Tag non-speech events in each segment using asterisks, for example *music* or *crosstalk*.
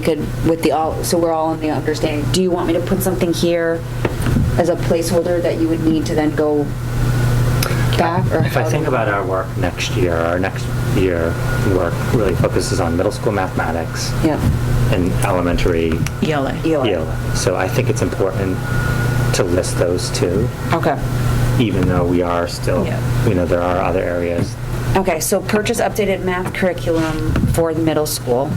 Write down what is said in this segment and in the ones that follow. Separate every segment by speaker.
Speaker 1: could, with the all, so we're all in the understanding, do you want me to put something here as a placeholder that you would need to then go back or?
Speaker 2: If I
Speaker 1: how do
Speaker 2: think
Speaker 1: we-
Speaker 2: about our work next year, our next year work really focuses on middle school mathematics
Speaker 1: Yeah,
Speaker 2: and elementary
Speaker 3: ELA.
Speaker 1: ELA.
Speaker 2: ELA. So I think it's important to list those two,
Speaker 1: Okay.
Speaker 2: even though we are still,
Speaker 3: Yeah.
Speaker 2: you know, there are other areas.
Speaker 1: Okay, so purchase updated math curriculum for the middle school.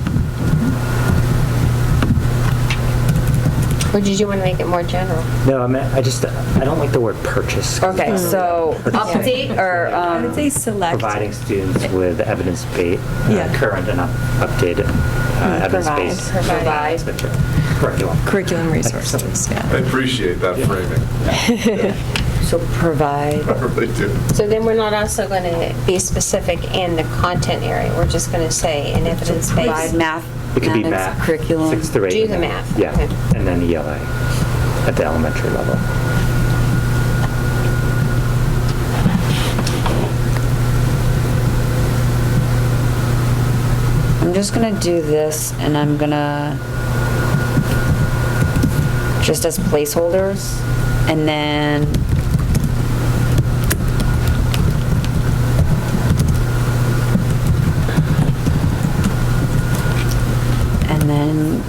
Speaker 4: Or did you want to make it more general?
Speaker 2: No, I mean, I just, I don't like the word purchase. Mm-hmm.
Speaker 1: Okay,
Speaker 3: *laughs*
Speaker 1: so update or,
Speaker 3: Hmm. I would
Speaker 1: um,
Speaker 3: say select.
Speaker 2: Providing students with evidence-based,
Speaker 3: Yeah.
Speaker 2: uh, current and up- updated uh, evidence-based
Speaker 1: Mm, provide.
Speaker 2: curriculum.
Speaker 3: Curriculum resources,
Speaker 5: I
Speaker 3: yeah.
Speaker 5: appreciate that framing. *laughs*
Speaker 1: So provide.
Speaker 5: I really do.
Speaker 4: So then we're not also going to be specific in the content area, we're just going to say in
Speaker 1: Provide
Speaker 4: evidence-based.
Speaker 1: math.
Speaker 2: It could be
Speaker 1: mathematics
Speaker 2: math,
Speaker 1: Curriculum.
Speaker 2: sixth through eighth.
Speaker 4: Do the
Speaker 2: and then-
Speaker 4: math, okay.
Speaker 2: Yeah, and then ELA at the elementary level.
Speaker 1: I'm just gonna do this and I'm gonna, just as placeholders, and then. And then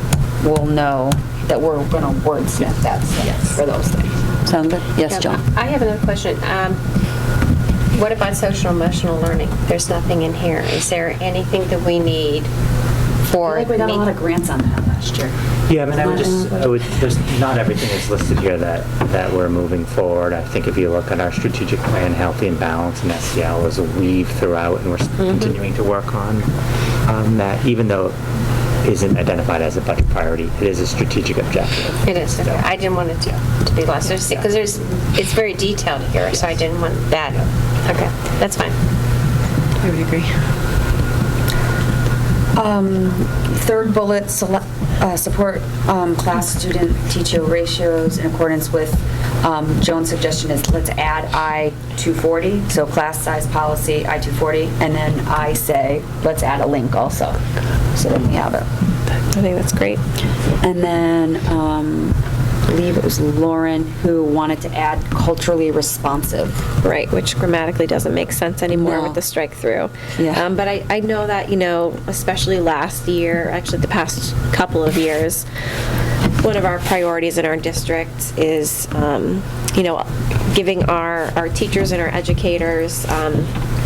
Speaker 1: we'll know that we're gonna wordsmith that stuff for those things. Sound good? Yes, John?
Speaker 4: I have another question. Um, What about social emotional learning? There's nothing in here. Is there anything that we need for?
Speaker 1: I feel like we got a
Speaker 4: me-
Speaker 1: lot of grants on that last year.
Speaker 2: Yeah, I mean, I would just, I would, there's, not everything is listed here that, that we're moving forward. I think if you look at our strategic plan, healthy and balanced, and SEL is a weave throughout, and we're s-
Speaker 4: Mm-hmm.
Speaker 2: continuing to work on, um, that even though it isn't identified as a budget priority, it is a strategic objective.
Speaker 4: It is, okay. I didn't want it to, to be lost, because there's, it's very detailed here, so I didn't want that. Okay, that's fine.
Speaker 3: I would agree.
Speaker 1: Um, Third bullet, sele- uh, support um, class student teacher ratios in accordance with um, Joan's suggestion is let's add I-240, so class size policy, I-240, and then I say, let's add a link also, so then we have it.
Speaker 3: I think that's great.
Speaker 1: And then, um, I believe it was Lauren who wanted to add culturally responsive.
Speaker 6: Right, which grammatically doesn't make sense anymore
Speaker 1: No.
Speaker 6: with the strike through.
Speaker 1: Yeah.
Speaker 6: Um, but I, I know that, you know, especially last year, actually the past couple of years, one of our priorities in our district is, um, you know, giving our, our teachers and our educators um,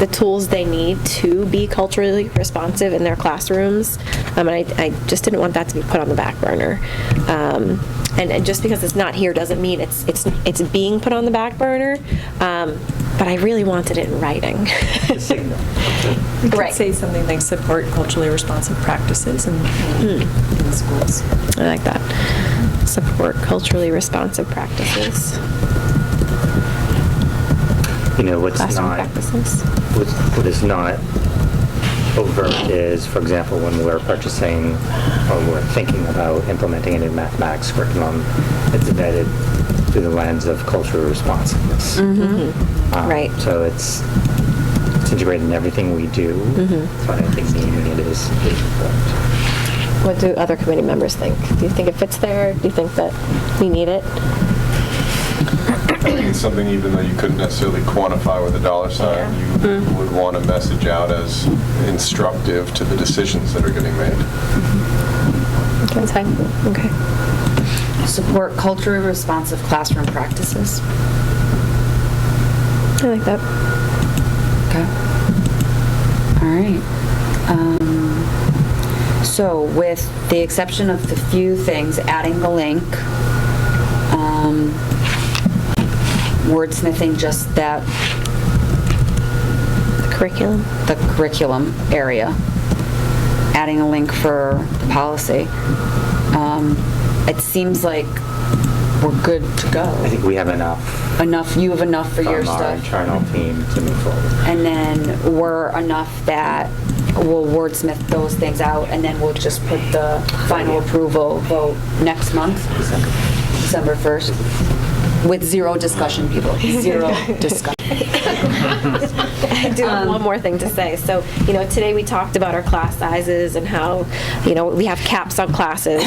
Speaker 6: the tools they need to be culturally responsive in their classrooms. Um, and I, I just didn't want that to be put on the back burner. Um, and, and just because it's not here doesn't mean it's, it's, it's being put on the back burner. Um, but I really wanted it in writing.
Speaker 2: The signal.
Speaker 6: *laughs*
Speaker 3: We could
Speaker 6: Right.
Speaker 3: say something like support culturally responsive practices in,
Speaker 6: Hmm.
Speaker 3: in schools.
Speaker 6: I like that. Support culturally responsive practices,
Speaker 2: You know, what's not.
Speaker 6: classroom practices.
Speaker 2: what what is not overt is, for example, when we're purchasing or we're thinking about implementing a new mathematics curriculum, it's embedded through the lens of cultural responsiveness. Um,
Speaker 6: Right.
Speaker 2: So it's it's integrated in everything we do. So I don't think naming it is is important.
Speaker 6: What do other committee members think? Do you think it fits there? Do you think that we need it?
Speaker 5: I think it's something even though you couldn't necessarily quantify with a dollar sign, you would want a message out as instructive to the decisions that are getting made.
Speaker 6: That's fine. Okay.
Speaker 1: Support culturally responsive classroom practices.
Speaker 6: I like that.
Speaker 1: Okay. All right. Um, So with the exception of the few things, adding the link, um, wordsmithing just that,
Speaker 6: Curriculum.
Speaker 1: the curriculum area, adding a link for the policy, um, it seems like we're good to
Speaker 2: I
Speaker 1: go.
Speaker 2: think we have enough
Speaker 1: Enough, you have enough for your
Speaker 2: from
Speaker 1: stuff.
Speaker 2: our internal team to move forward.
Speaker 1: and then we're enough that we'll wordsmith those things out, and then we'll just put the final approval vote next month, December 1st. with zero discussion, people, zero discussion.
Speaker 6: I do have one more thing to say. So, you know, today we talked about our class sizes and how, you know, we have caps on classes.